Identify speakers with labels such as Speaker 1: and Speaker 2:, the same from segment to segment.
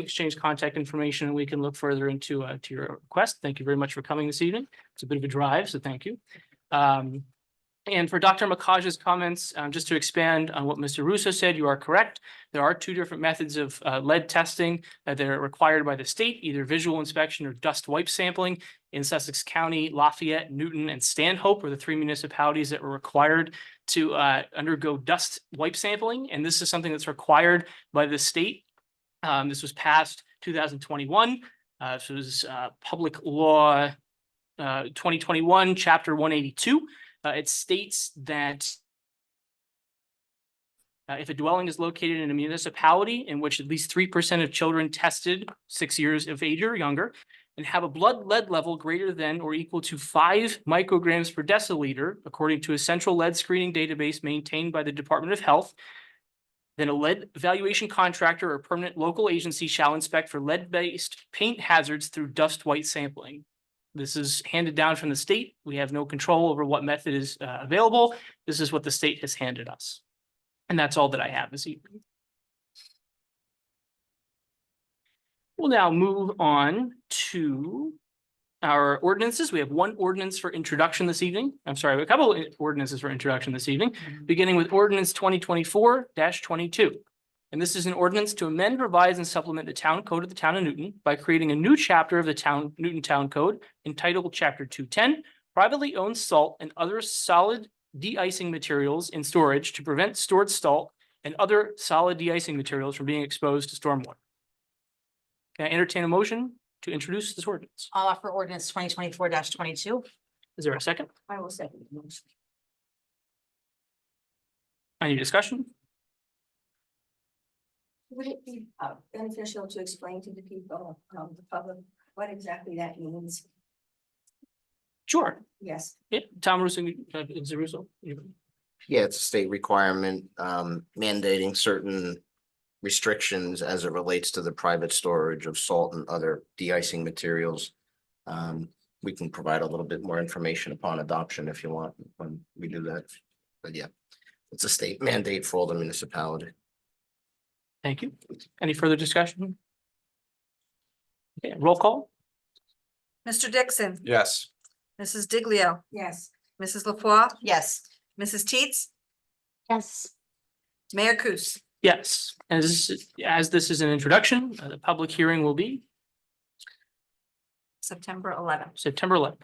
Speaker 1: exchange contact information and we can look further into uh to your request. Thank you very much for coming this evening. It's a bit of a drive, so thank you. Um, and for Dr. Makaj's comments, um, just to expand on what Mr. Russo said, you are correct. There are two different methods of uh lead testing uh, that are required by the state, either visual inspection or dust wipe sampling. In Sussex County, Lafayette, Newton, and Stanhope are the three municipalities that were required to uh undergo dust wipe sampling, and this is something that's required by the state. Um, this was passed two thousand twenty-one, uh, this was uh public law uh twenty twenty-one, chapter one eighty-two. Uh, it states that uh, if a dwelling is located in a municipality in which at least three percent of children tested six years of age or younger and have a blood lead level greater than or equal to five micrograms per deciliter, according to a central lead screening database maintained by the Department of Health, then a lead evaluation contractor or permanent local agency shall inspect for lead-based paint hazards through dust white sampling. This is handed down from the state. We have no control over what method is uh, available. This is what the state has handed us. And that's all that I have this evening. We'll now move on to our ordinances. We have one ordinance for introduction this evening. I'm sorry, a couple of ordinances for introduction this evening beginning with ordinance twenty twenty-four twenty-two. And this is an ordinance to amend, revise, and supplement the town code of the town of Newton by creating a new chapter of the town, Newton Town Code entitled Chapter two ten, privately owned salt and other solid de-icing materials in storage to prevent stored salt and other solid de-icing materials from being exposed to stormwater. Can I entertain a motion to introduce this ordinance?
Speaker 2: I'll offer ordinance twenty twenty-four twenty-two.
Speaker 1: Is there a second?
Speaker 2: I will second the motion.
Speaker 1: Any discussion?
Speaker 3: Would it be uh, beneficial to explain to the people, um, the public, what exactly that means?
Speaker 1: Sure.
Speaker 3: Yes,
Speaker 1: Yeah, Tom Russo, uh, is it Russo? You-
Speaker 4: Yeah, it's a state requirement um mandating certain restrictions as it relates to the private storage of salt and other de-icing materials. Um, we can provide a little bit more information upon adoption if you want when we do that. But yeah, it's a state mandate for all the municipality.
Speaker 1: Thank you. Any further discussion? Okay, roll call?
Speaker 5: Mr. Dixon,
Speaker 6: Yes.
Speaker 5: Mrs. Diglio,
Speaker 3: yes.
Speaker 5: Mrs. LaFois,
Speaker 2: Yes,
Speaker 5: Mrs. Teets,
Speaker 3: Yes.
Speaker 5: Mayor Kus.
Speaker 1: Yes, as, as this is an introduction, uh, the public hearing will be
Speaker 5: September eleventh.
Speaker 1: September eleventh.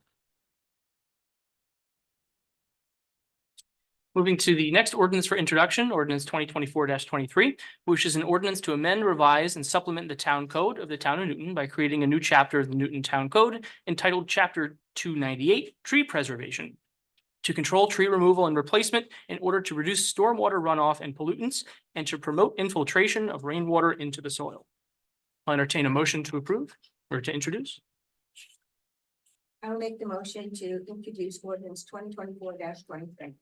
Speaker 1: Moving to the next ordinance for introduction, ordinance twenty twenty-four twenty-three, which is an ordinance to amend, revise, and supplement the town code of the town of Newton by creating a new chapter of the Newton Town Code entitled Chapter two ninety-eight, Tree Preservation, to control tree removal and replacement in order to reduce stormwater runoff and pollutants and to promote infiltration of rainwater into the soil. I'll entertain a motion to approve or to introduce.
Speaker 3: I'll make the motion to introduce ordinance twenty twenty-four twenty-three.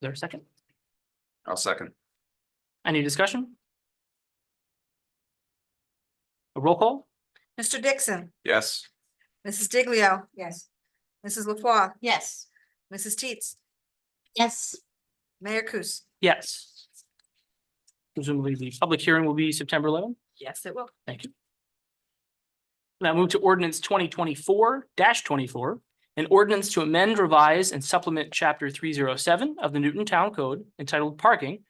Speaker 1: Is there a second?
Speaker 6: I'll second.
Speaker 1: Any discussion? A roll call?
Speaker 5: Mr. Dixon,
Speaker 6: Yes.
Speaker 5: Mrs. Diglio,
Speaker 3: Yes,
Speaker 5: Mrs. LaFois,
Speaker 2: yes.
Speaker 5: Mrs. Teets,
Speaker 2: Yes.
Speaker 5: Mayor Kus.
Speaker 1: Yes. Presumably the public hearing will be September eleventh.
Speaker 5: Yes, it will.
Speaker 1: Thank you. Now move to ordinance twenty twenty-four twenty-four. An ordinance to amend, revise, and supplement chapter three zero seven of the Newton Town Code entitled Parking.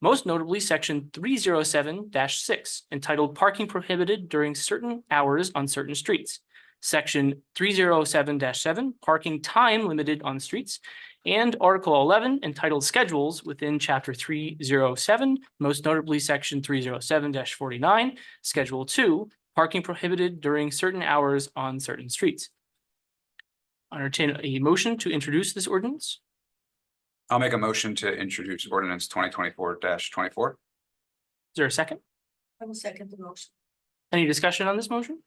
Speaker 1: Most notably, section three zero seven six entitled Parking Prohibited During Certain Hours on Certain Streets. Section three zero seven seven, Parking Time Limited on Streets. And article eleven entitled Schedules within chapter three zero seven, most notably, section three zero seven forty-nine. Schedule two, parking prohibited during certain hours on certain streets. Entertain a motion to introduce this ordinance.
Speaker 6: I'll make a motion to introduce ordinance twenty twenty-four twenty-four.
Speaker 1: Is there a second?
Speaker 3: I will second the motion.
Speaker 1: Any discussion on this motion?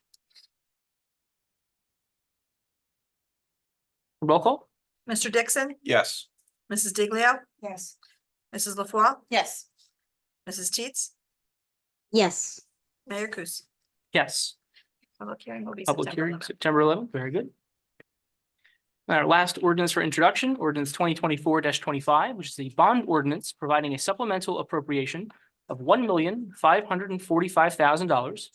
Speaker 1: Roll call?
Speaker 5: Mr. Dixon,
Speaker 6: Yes.
Speaker 5: Mrs. Diglio,
Speaker 3: Yes,
Speaker 5: Mrs. LaFois,
Speaker 2: Yes.
Speaker 5: Mrs. Teets,
Speaker 7: Yes,
Speaker 5: Mayor Kus.
Speaker 1: Yes.
Speaker 5: Public hearing will be
Speaker 1: Public
Speaker 5: September
Speaker 1: hearing,
Speaker 5: 11th.
Speaker 1: September eleventh, very good. Our last ordinance for introduction, ordinance twenty twenty-four twenty-five, which is the bond ordinance providing a supplemental appropriation of one million, five hundred and forty-five thousand dollars